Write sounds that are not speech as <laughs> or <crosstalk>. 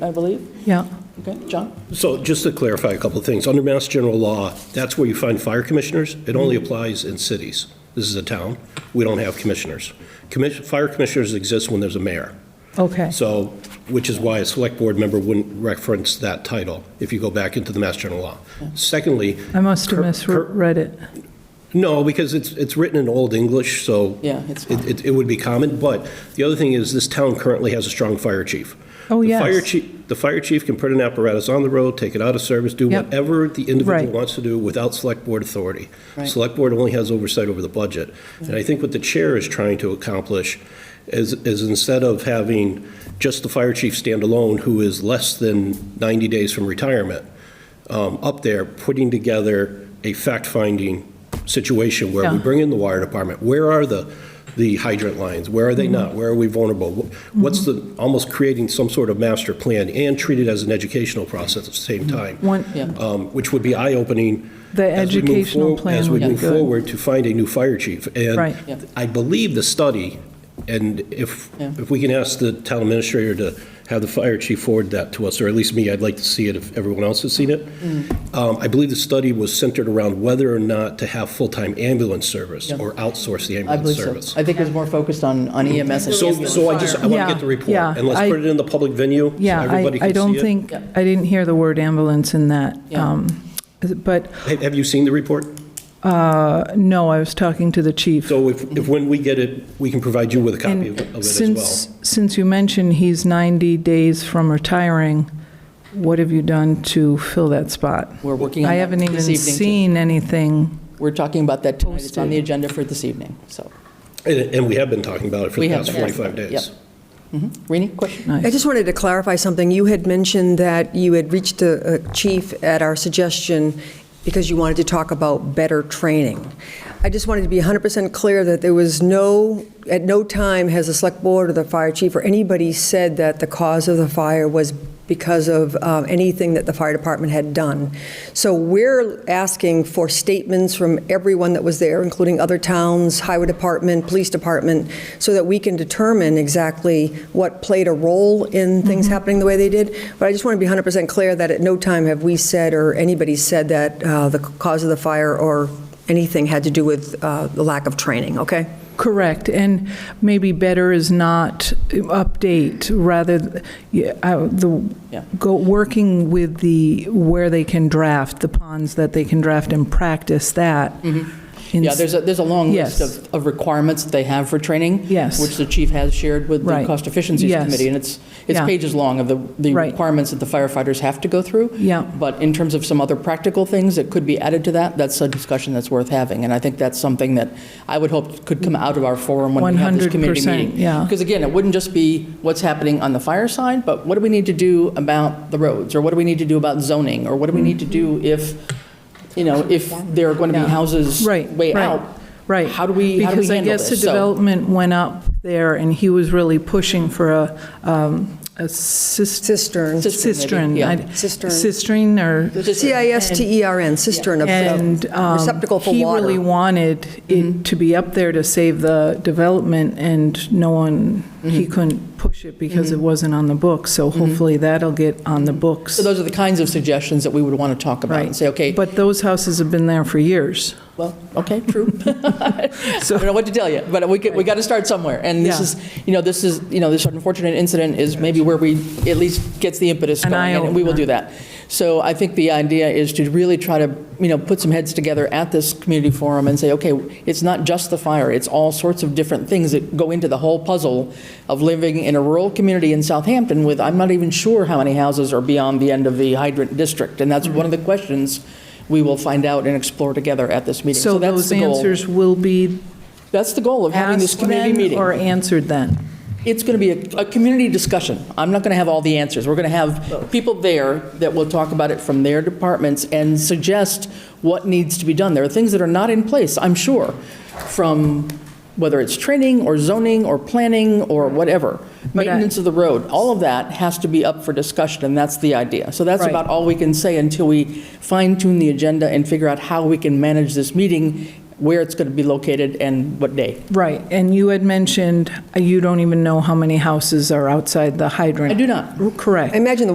I believe. Yeah. Okay, John? So just to clarify a couple of things, under Mass General Law, that's where you find fire commissioners. It only applies in cities. This is a town. We don't have commissioners. Commis- Fire commissioners exist when there's a mayor. Okay. So, which is why a select board member wouldn't reference that title if you go back into the Mass General Law. Secondly, I must have Cur- cur- misread it. no, because it's, it's written in Old English, so. Yeah, it's it- It, it would be common, but the other thing is, this town currently has a strong fire chief. Oh, The yes. fire chief, the fire chief can put an apparatus on the road, take it out of service, do Yep. whatever the individual Right. wants to do without select board authority. Right. Select board only has oversight over the budget. And I think what the chair is trying to accomplish is, is instead of having just the fire chief stand alone, who is less than 90 days from retirement, um, up there putting together a fact-finding situation where we Yeah. bring in the wire department. Where are the, the hydrant lines? Where are they not? Where are we vulnerable? Wh- What's the, almost creating some sort of master plan and treat it as an educational process at the same time, One, Yeah. um, which would be eye-opening. The as we move educational for- plan As we would be move good. forward to find a new fire chief. Right. Yep. And I believe the study, and if, Yeah. if we can ask the town administrator to have the fire chief forward that to us, or at least me, I'd like to see it if everyone else has seen it. Mm. Um, I believe the study was centered around whether or not to have full-time ambulance service Yeah. or outsource the I ambulance believe so. service. I think it was more focused on on EMS and E So, ambulance. so I just, I want Yeah, to get the report, yeah, and let's I- put it in the public venue, so yeah, I, everybody I can don't see it. think, Yep. I didn't hear the word ambulance in that. Yeah. um, But, Ha- Have you seen the report? uh, no, I was talking to the chief. So if, if when we get it, we can provide you with a copy of it of it And as well. since, since you mentioned he's 90 days from retiring, what have you done to fill that spot? We're working on I that haven't even this evening, too. seen anything. We're talking about that tonight. It's on Posted. the agenda for this evening, so. And, and we have been talking about it for we the have past that. 45 days. Yep. Mhm. Rini, question? Nice. I just wanted to clarify something. You had mentioned that you had reached the uh, chief at our suggestion because you wanted to talk about better training. I just wanted to be 100% clear that there was no, at no time has the select board or the fire chief or anybody said that the cause of the fire was because of uh, anything that the fire department had done. So we're asking for statements from everyone that was there, including other towns, highway department, police department, so that we can determine exactly what played a role in things Mm-hmm. happening the way they did. But I just want to be 100% clear that at no time have we said or anybody said that uh, the cause of the fire or anything had to do with uh, the lack of training, okay? Correct, and maybe better is not update, rather, yeah, I- the, Yeah. go, working with the, where they can draft, the ponds that they can draft and practice that. Mm-hmm. Yeah, there's a, there's a long list Yes. of, of requirements that they have for training. Yes. Which the chief has shared with the Right. Cost Efficiencies Yes. Committee. And it's, it's Yeah. pages long of the, the Right. requirements that the firefighters have to go through. Yeah. But in terms of some other practical things that could be added to that, that's a discussion that's worth having. And I think that's something that I would hope could come out of our forum when we have this community 100%, meeting. yeah. Because again, it wouldn't just be what's happening on the fire side, but what do we need to do about the roads? Or what do we need to do about zoning? Or what do we need to do if, you know, if there are going to be Yeah. houses Right, way right, out? Right. How do we, how do we Because I handle guess the this? So, development went up there, and he was really pushing for a, um, a cistern. Cistern. Cistern, Cistern. maybe, yeah. I'd- Cistern. Cistern or C-I-S-T-E-R-N, E cistern, And a um, receptacle for he water. really wanted Mm-hmm. it to be up there to save the development, and no one, he Mm-hmm. couldn't push it because it wasn't on the books, so hopefully that'll get on the books. so those are the kinds of suggestions that we would want to talk about and Right. say, okay, But those houses have been there for years. well, okay, <laughs> true. <laughs> I So- don't know what to tell you, but we, could- we got to start somewhere. And this Yeah. is, you know, this is, you know, this unfortunate incident is maybe where we, at least gets the impetus An going, and we will do that. So I think the idea is to really try to, you know, put some heads together at this community forum and say, okay, it's not just the fire, it's all sorts of different things that go into the whole puzzle of living in a rural community in Southampton with, I'm not even sure how many houses are beyond the end of the hydrant district. And that's one of Mm-hmm. the questions we will find out and explore together at this meeting. So that's those the goal. answers will be That's the goal of having this asked community then or meeting. answered then? It's going to be a, a community discussion. I'm not going to have all the answers. We're going to have people there that will talk about it from their departments and suggest what needs to be done. There are things that are not in place, I'm sure, from whether it's training or zoning or planning or whatever. But uh, I- Maintenance of the road, all of that has to be up for discussion, and that's the idea. So that's Right. about all we can say until we fine tune the agenda and figure out how we can manage this meeting, where it's going to be located, and what day. Right, and you had mentioned uh, you don't even know how many houses are outside the hydrant. I do not. Correct. I imagine the